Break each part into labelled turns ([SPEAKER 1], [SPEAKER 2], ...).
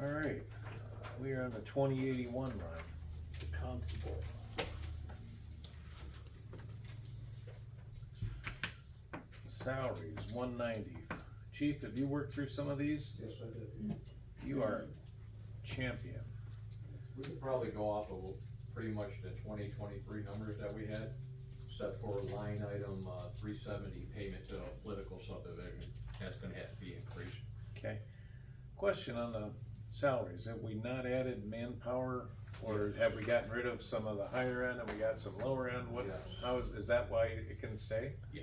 [SPEAKER 1] All right, we are on the twenty eighty-one line.
[SPEAKER 2] Constable.
[SPEAKER 1] Salaries, one ninety. Chief, have you worked through some of these?
[SPEAKER 3] Yes, I did.
[SPEAKER 1] You are champion.
[SPEAKER 3] We could probably go off of pretty much the twenty twenty-three numbers that we had, except for line item, uh, three seventy payment to a political subdivision, that's gonna have to be increased.
[SPEAKER 1] Okay. Question on the salaries, have we not added manpower? Or have we gotten rid of some of the higher end and we got some lower end? What,
[SPEAKER 3] Yes.
[SPEAKER 1] how is, is that why it can stay?
[SPEAKER 3] Yeah.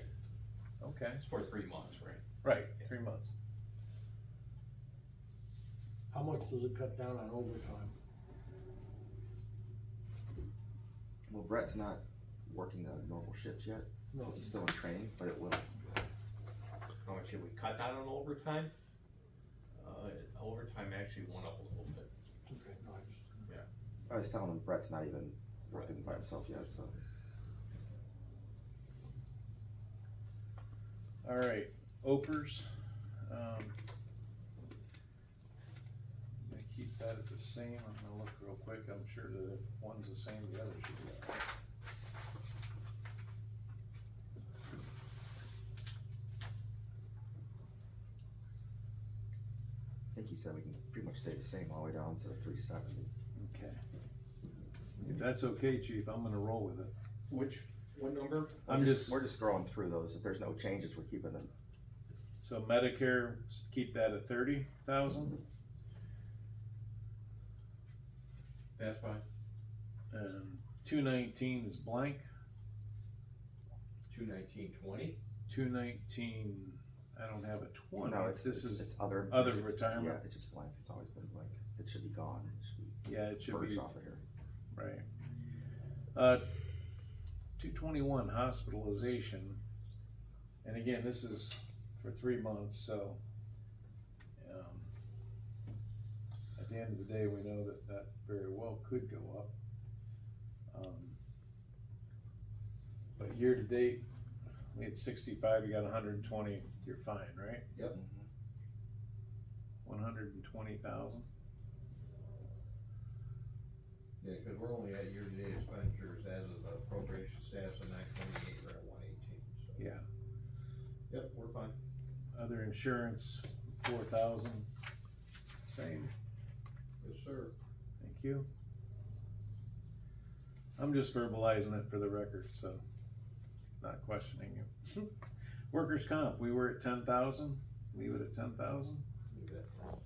[SPEAKER 1] Okay,
[SPEAKER 3] It's for three months, right?
[SPEAKER 1] right, three months.
[SPEAKER 2] How much does it cut down on overtime?
[SPEAKER 4] Well, Brett's not working the normal shifts yet,
[SPEAKER 2] No,
[SPEAKER 4] because he's still in training, but it will.
[SPEAKER 3] How much did we cut down on overtime? Uh, overtime actually went up a little bit.
[SPEAKER 2] okay, no, I just,
[SPEAKER 4] I was telling him Brett's not even working by himself yet, so.
[SPEAKER 1] All right, Opers. Um, I'm gonna keep that at the same, I'm gonna look real quick, I'm sure that if one's the same, the other should be. all right.
[SPEAKER 4] I think he said we can pretty much stay the same all the way down to three seventy.
[SPEAKER 1] Okay. If that's okay, chief, I'm gonna roll with it.
[SPEAKER 3] Which, what number?
[SPEAKER 1] I'm just,
[SPEAKER 4] We're just scrolling through those, if there's no changes, we're keeping them.
[SPEAKER 1] so Medicare, s- keep that at thirty thousand,
[SPEAKER 3] That's fine.
[SPEAKER 1] and two nineteen is blank,
[SPEAKER 3] Two nineteen twenty?
[SPEAKER 1] two nineteen, I don't have a twenty,
[SPEAKER 4] No, it's,
[SPEAKER 1] this
[SPEAKER 4] it's
[SPEAKER 1] is,
[SPEAKER 4] it's other.
[SPEAKER 1] other
[SPEAKER 4] it's just-
[SPEAKER 1] retirement.
[SPEAKER 4] Yeah, it's just blank, it's always been blank, it should be gone, it should be
[SPEAKER 1] yeah, it should be
[SPEAKER 4] purged off of here.
[SPEAKER 1] Right. Uh, two twenty-one hospitalization, and again, this is for three months, so. um, At the end of the day, we know that that very well could go up. Um, But year-to-date, we had sixty-five, you got hundred and twenty, you're fine, right?
[SPEAKER 4] Mhm.
[SPEAKER 1] Mm-hmm. One hundred and twenty thousand,
[SPEAKER 3] Yeah, cause we're only at year-to-date expenditures as of the appropriation status of nine twenty-eight, we're at one eighteen, so.
[SPEAKER 1] yeah.
[SPEAKER 3] Yep, we're fine.
[SPEAKER 1] Other insurance, four thousand, same.
[SPEAKER 3] Yes, sir.
[SPEAKER 1] Thank you. I'm just verbalizing it for the record, so not questioning you. Workers' comp, we were at ten thousand, leave it at ten thousand.
[SPEAKER 3] Leave that.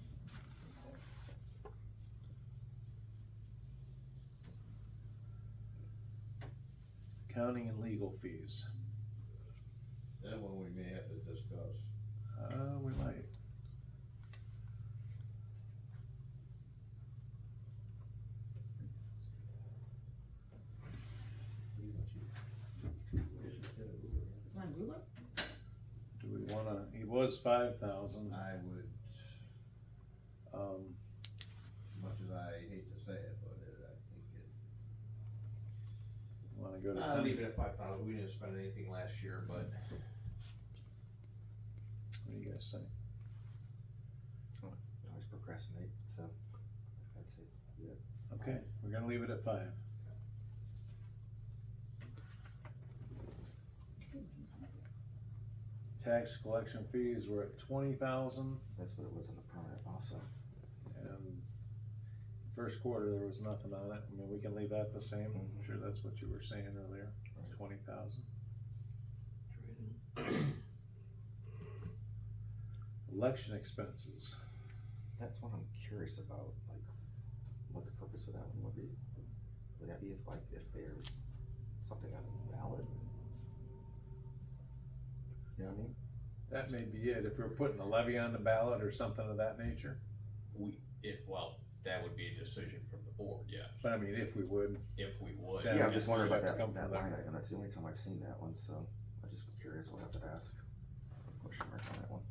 [SPEAKER 1] Accounting and legal fees,
[SPEAKER 3] That one we may have to discuss.
[SPEAKER 1] uh, we might.
[SPEAKER 5] My ruler?
[SPEAKER 1] Do we wanna, it was five thousand,
[SPEAKER 3] I would,
[SPEAKER 1] um,
[SPEAKER 3] much as I hate to say it, but it- I think it.
[SPEAKER 1] wanna go to
[SPEAKER 3] I'll Uh, leave
[SPEAKER 1] ten?
[SPEAKER 3] it at five thousand, we didn't spend anything last year, but.
[SPEAKER 1] What do you guys think?
[SPEAKER 4] I always procrastinate, so, that's it.
[SPEAKER 1] Okay, we're gonna leave it at five. Tax collection fees were at twenty thousand.
[SPEAKER 4] That's what it was on the permit also.
[SPEAKER 1] And first quarter, there was nothing on it, I mean, we can leave that the same, I'm sure that's what you were saying earlier,
[SPEAKER 4] Right.
[SPEAKER 1] twenty thousand.
[SPEAKER 2] training.
[SPEAKER 1] Election expenses,
[SPEAKER 4] That's what I'm curious about, like, what the purpose of that one would be. Would that be if, like, if there's something on the ballot? You know what I mean?
[SPEAKER 1] that may be it, if we're putting a levy on the ballot or something of that nature,
[SPEAKER 3] We, it, well, that would be a decision from the board, yeah,
[SPEAKER 1] but I mean, if we would,
[SPEAKER 3] if we would.
[SPEAKER 1] Yeah,
[SPEAKER 4] Yeah, I'm
[SPEAKER 1] just
[SPEAKER 4] just wondering about
[SPEAKER 1] have to come
[SPEAKER 4] that, that
[SPEAKER 1] from
[SPEAKER 4] line
[SPEAKER 1] that.
[SPEAKER 4] item, that's the only time I've seen that one, so I'm just curious, we'll have to ask. Question mark on that one.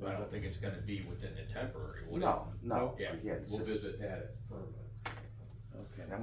[SPEAKER 3] But I don't think it's gonna be within the temporary, would it?
[SPEAKER 4] No, no,
[SPEAKER 3] oh, Yeah,
[SPEAKER 4] yeah, it's
[SPEAKER 3] we'll
[SPEAKER 4] just,
[SPEAKER 3] visit that at permanent.
[SPEAKER 1] okay.